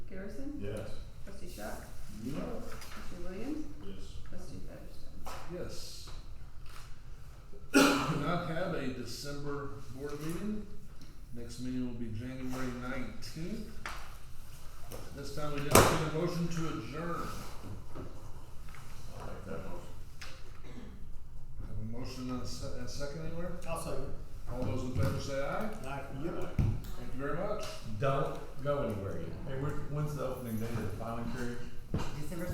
Yes. Trustee Shaw? No. Trustee Williams? Yes. Trustee Featherstone? Yes. Do not have a December board meeting. Next meeting will be January nineteenth. This time we entertain a motion to adjourn. I'll make that motion. Have a motion and a se- and a second anywhere? I'll second. All those in favor say aye. Aye. Thank you very much. Don't go anywhere yet. Hey, when's the opening date of the filing period?